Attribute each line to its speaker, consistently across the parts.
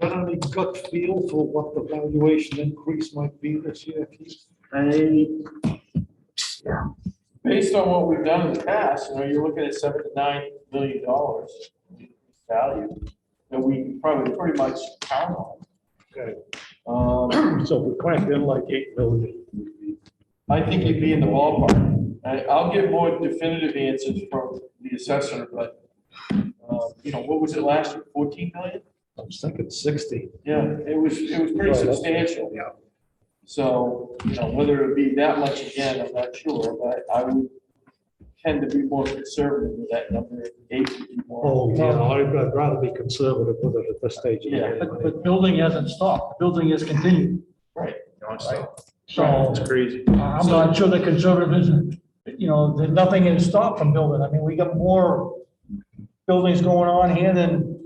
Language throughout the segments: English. Speaker 1: got any gut feel for what the valuation increase might be this year, Keith?
Speaker 2: I,
Speaker 3: Based on what we've done in the past, you know, you're looking at seven to nine million dollars value that we can probably pretty much count on.
Speaker 1: Okay.
Speaker 3: Um,
Speaker 1: So we cracked in like eight million.
Speaker 3: I think you'd be in the ballpark. I, I'll get more definitive answers from the assessor, but, um, you know, what was it last year, fourteen million?
Speaker 1: I was thinking sixty.
Speaker 3: Yeah, it was, it was pretty
Speaker 1: Right, that's-
Speaker 3: substantial.
Speaker 1: Yeah.
Speaker 3: So, you know, whether it be that much again, I'm not sure, but I would tend to be more conservative with that number, eight would be more.
Speaker 1: Oh, yeah, I'd I'd rather be conservative with it at this stage. of the
Speaker 3: Yeah,
Speaker 1: game.
Speaker 2: Um, but, but building hasn't stopped, building has continued, so.
Speaker 3: crazy.
Speaker 2: I'm not sure the conservatism, you know, there's nothing has stopped from building. I mean, we got more buildings going on here than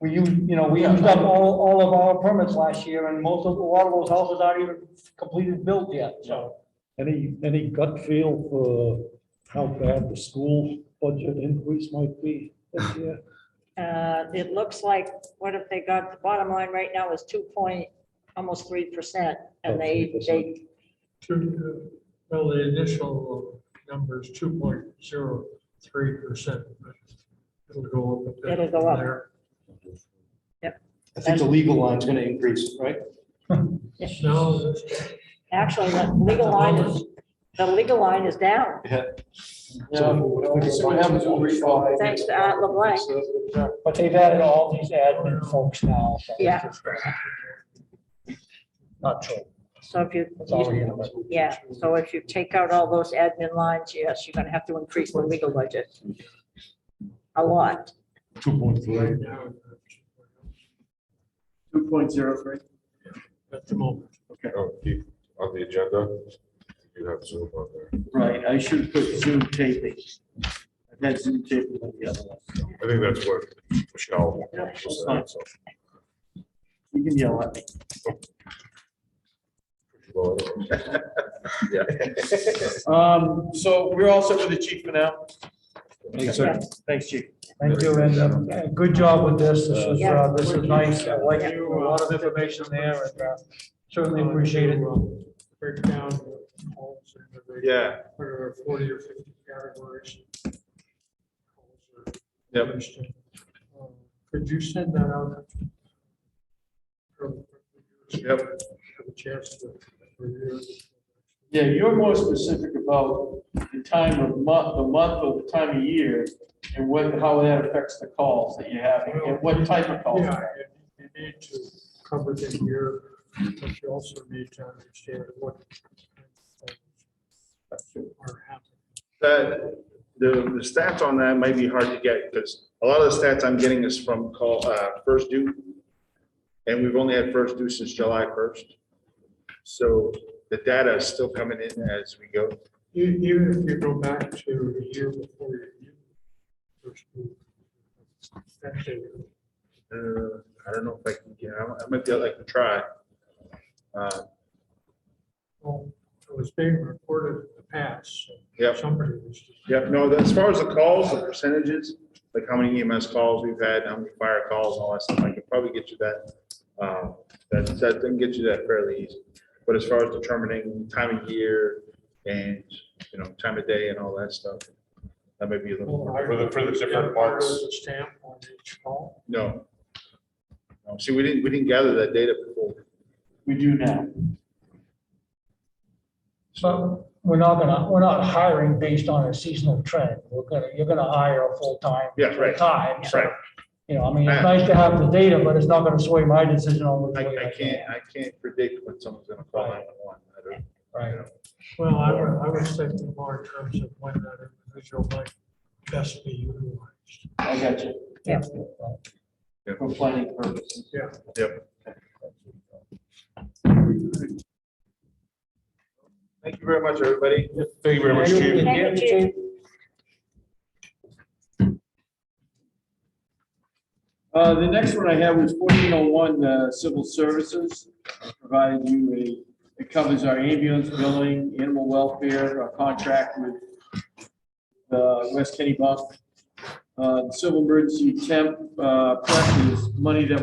Speaker 2: we, u- you know, we used up all, all of our permits last year and most of, a lot of those houses aren't even completed built yet, so.
Speaker 1: Any, any gut feel for how bad the school budget increase might be this year?
Speaker 4: Uh, It looks like, what if they got, the bottom line right now is two point, almost three percent,
Speaker 1: Oh,
Speaker 4: and they,
Speaker 1: 3%.
Speaker 4: they,
Speaker 5: Two, uh, well, the initial number is two point zero three percent. It'll go up. a bit
Speaker 4: It'll go
Speaker 5: from
Speaker 4: up.
Speaker 5: there.
Speaker 6: I think the legal line's gonna increase, right?
Speaker 5: No,
Speaker 4: actually, the legal line is, the legal line is down.
Speaker 3: So what happens when we fall?
Speaker 4: Thanks to Art LeBlanc.
Speaker 2: But they've added all these admin folks now. so it's
Speaker 4: Yeah.
Speaker 2: just- Not true.
Speaker 4: So if you,
Speaker 2: It's already in the-
Speaker 4: yeah, so if you take out all those admin lines, yes, you're gonna have to increase the legal budget. A lot.
Speaker 1: Two point three.
Speaker 5: right now,
Speaker 3: Two point zero three.
Speaker 5: At the moment.
Speaker 7: Oh, Keith, on the agenda, you have Zoom on there.
Speaker 3: Right, I should have put Zoom taping. That's Zoom taping on the other one.
Speaker 7: I think that's what Michelle.
Speaker 4: Yeah,
Speaker 3: that's fine. You can yell at me.
Speaker 7: Well, Yeah.
Speaker 3: Um, so we're all set with the chief for now? Thanks, chief.
Speaker 2: Thank you, and uh, uh, good job with this. This is,
Speaker 4: Yeah.
Speaker 2: uh, this is nice. I like a lot of information there and uh, certainly appreciate it.
Speaker 5: Break down. the calls and the rate,
Speaker 7: Yeah,
Speaker 5: What are forty or fifty categories?
Speaker 7: Yep.
Speaker 5: Could you send that out?
Speaker 7: Yep.
Speaker 5: Have a chance to review.
Speaker 3: Yeah, you're more specific about the time of month, the month or the time of year and what, how that affects the calls that you have and what type of calls.
Speaker 5: Yeah, you you need to cover the year, but you also need to understand what are happening.
Speaker 8: That, the, Uh, the stats on that might be hard to get, because a lot of the stats I'm getting is from call, uh, first due. And we've only had first due since July first. So the data is still coming in as we go.
Speaker 5: E- Even if you go back to the year before you. you- first year, that's it.
Speaker 8: Uh, I don't know if I can, get. I might be able, I can try. Uh,
Speaker 5: Well, It was being recorded in the past. so
Speaker 8: Yep.
Speaker 5: Somebody was.
Speaker 8: Yeah, no, the- as far as the calls, the percentages, like how many EMS calls we've had, how many fire calls, all that stuff, I could probably get you that. Um, That, that can get you that fairly easy. But as far as determining time of year and, you know, time of day and all that stuff, that may be a little,
Speaker 7: For the- for the different parts.
Speaker 5: There's a Stamp on each call.
Speaker 8: no. No, See, we didn't, we didn't gather that data before.
Speaker 3: We do now.
Speaker 2: So we're not gonna, we're not hiring based on a seasonal trend. We're gonna, you're gonna hire a full-time.
Speaker 8: Yeah, right.
Speaker 2: Time.
Speaker 8: Right,
Speaker 2: You know, I mean, it's nice to have the data, but it's not gonna sway my decision on which
Speaker 8: I,
Speaker 2: way
Speaker 8: I can't, I can't predict when someone's gonna call nine one one.
Speaker 2: Right.
Speaker 5: Well, I was, I was thinking more in terms of when that individual might best be utilized.
Speaker 3: I got you.
Speaker 4: Yeah.
Speaker 3: For planning purposes.
Speaker 5: Yeah.
Speaker 8: Yep. Thank you very much, everybody.
Speaker 7: Thank you very much, chief.
Speaker 4: Thank you, Chief.
Speaker 3: Uh, the next one I have was fourteen oh one, uh, civil services. I Provided you a, it covers our ambulance billing, animal welfare, our contract with the West Kenny Bump. Uh, civil emergency temp, uh, prep is uh, money that